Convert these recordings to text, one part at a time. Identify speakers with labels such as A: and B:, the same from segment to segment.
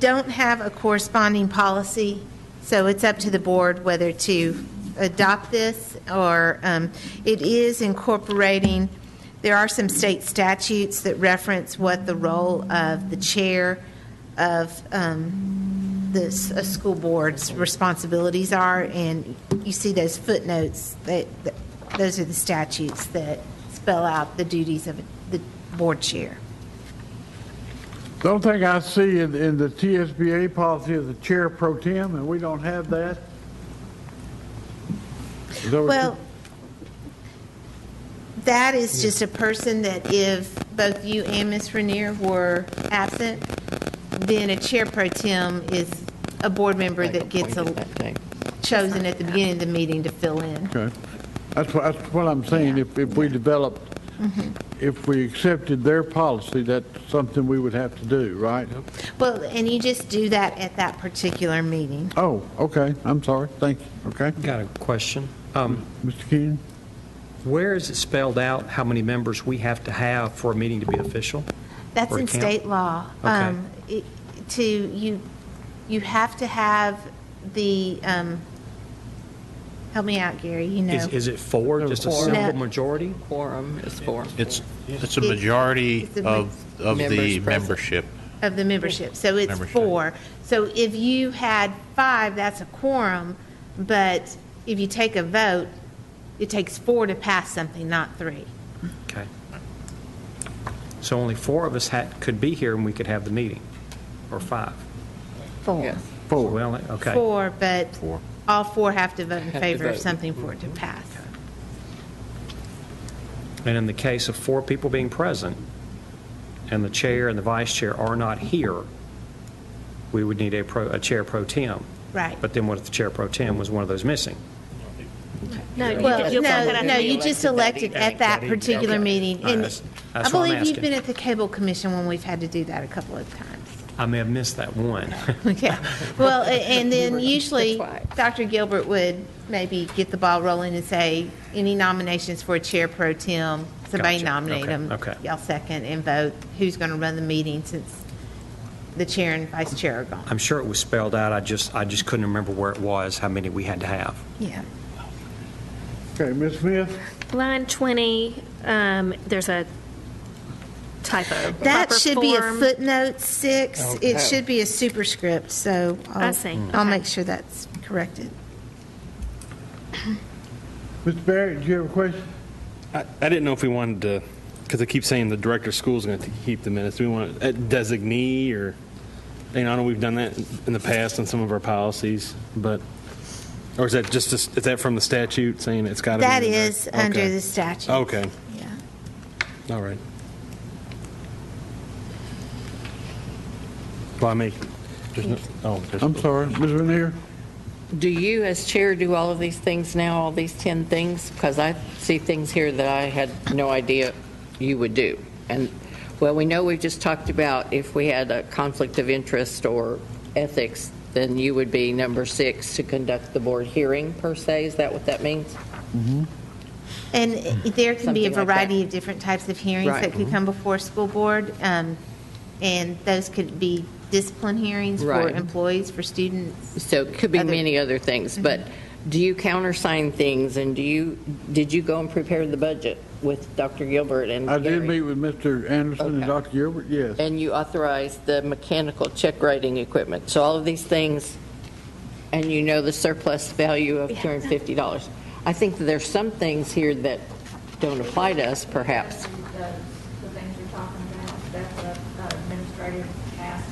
A: don't have a corresponding policy, so it's up to the board whether to adopt this or, um, it is incorporating, there are some state statutes that reference what the role of the chair of um, this, a school board's responsibilities are, and you see those footnotes, that, that- those are the statutes that spell out the duties of the board chair.
B: The only thing I see in, in the TSBA policy is the chair pro tem, and we don't have that. Is that what you-
A: Well, that is just a person that if both you and Ms. Rainier were absent, then a chair pro tem is a board member that gets a- chosen at the beginning of the meeting to fill in.
B: Okay. That's what, that's what I'm saying, if, if we developed, if we accepted their policy, that's something we would have to do, right?
A: Well, and you just do that at that particular meeting.
B: Oh, okay, I'm sorry, thank you, okay.
C: Got a question. Um,
B: Mr. Keenan?
C: Where is it spelled out how many members we have to have for a meeting to be official?
A: That's
C: Or
A: in
C: can't?
A: state law.
C: Okay.
A: Um, it- To, you, you have to have the, um, help me out, Gary, you know.
C: Is is it four, just a
A: Quorum.
C: simple
A: No.
C: majority?
D: Quorum is four.
E: It's, it's
A: It's-
E: a majority
A: it's a ma-
E: of, of
D: Members
E: the
D: present.
E: membership.
A: Of the membership, so it's
E: Membership.
A: four. So if you had five, that's a quorum, but if you take a vote, it takes four to pass something, not three.
C: Okay. So only four of us had, could be here and we could have the meeting, or five?
A: Four.
D: Yes.
C: Four. Okay.
A: Four, but
E: Four.
A: all four have to vote in
D: Have to
A: favor of
D: vote.
A: something for
C: Mm-hmm.
A: it to pass.
C: And in the case of four people being present, and the chair and the vice chair are not here, we would need a pro, a chair pro tem.
A: Right.
C: But then what if the chair pro tem was one of those missing?
A: No,
F: Well,
A: you-
F: you'll come
A: no,
F: back
A: no,
F: and be
A: you just
F: elected
A: elected at that
C: evening.
A: particular
C: Okay.
A: meeting.
C: All right,
A: And
C: that's-
A: I
C: that's what I'm
A: believe you've
C: asking.
A: been at the Cable Commission when we've had to do that a couple of times.
C: I may have missed that one.
A: Okay, well, a- and then usually,
D: That's why.
A: Dr. Gilbert would maybe get the ball rolling and say, any nominations for a chair pro tem, somebody
C: Gotcha.
A: nominate
C: Okay,
A: them.
C: okay.
A: Y'all second and vote who's going to run the meeting since the chair and vice chair are gone.
C: I'm sure it was spelled out, I just, I just couldn't remember where it was, how many we had to have.
A: Yeah.
B: Okay, Ms. Smith?
F: Line 20, um, there's a typo.
A: That
F: Proper
A: should be a
F: form-
A: footnote six. It should be a superscript, so. I'll-
F: I see.
A: I'll
F: Okay.
A: make sure that's corrected.
B: Mr. Barrett, do you have a question?
G: I I didn't know if we wanted to, because I keep saying the director of school is going to keep the minutes. Do we want a designee or, you know, I know we've done that in the past on some of our policies, but, or is that just, is that from the statute saying it's got to be?
A: That
G: in there?
A: is under
G: Okay.
A: the statute.
G: Okay,
A: Yeah.
G: all right. Well, I make, there's no, oh. there's-
B: I'm sorry, Ms. Rainier?
D: Do you, as chair, do all of these things now, all these 10 things? Because I see things here that I had no idea you would do. And, well, we know we've just talked about if we had a conflict of interest or ethics, then you would be number six to conduct the board hearing, per se. Is that what that means?
A: And there can be a
D: Something like that.
A: variety of different types of hearings
D: Right. Mm-hmm.
A: that could come before a school board, um, and those could be discipline hearings for
D: Right.
A: employees, for students.
D: So it could be
A: Other-
D: many other Mm-hmm. things, but do you countersign things, and do you, did you go and prepare the budget with Dr. Gilbert and
B: I did meet
D: Gary?
B: with Mr. Anderson and
D: Okay.
B: Dr. Gilbert, yes.
D: And you authorized the mechanical check writing equipment, so all of these things, and you know the surplus value of $250. I think that there's some things here that don't apply to us, perhaps.
H: The things you're talking about, that's a administrative task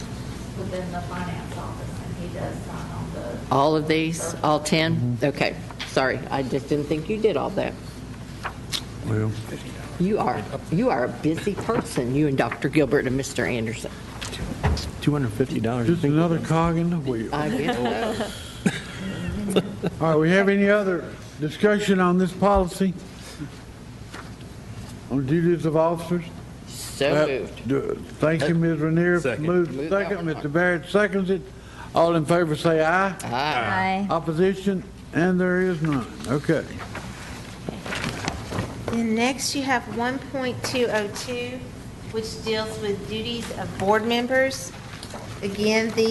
H: within the finance office, and he does sign on the
D: All of these, all 10? Okay, sorry, I just didn't think you did all that.
B: Well,
D: You are, you are a busy person, you and Dr. Gilbert and Mr. Anderson.
G: $250.
B: Just another cog in the wheel.
D: I guess so.
B: All right, we have any other discussion on this policy? On duties of officers?
D: So moved.
B: Do- Thank you, Ms. Renier.
G: Second.
B: Moved and second, Mr. Barrett seconds it. All in favor say aye.
D: Ah.
B: Opposition, and there is none. Okay.
A: Then next, you have 1.202, which deals with duties of board members. Again, the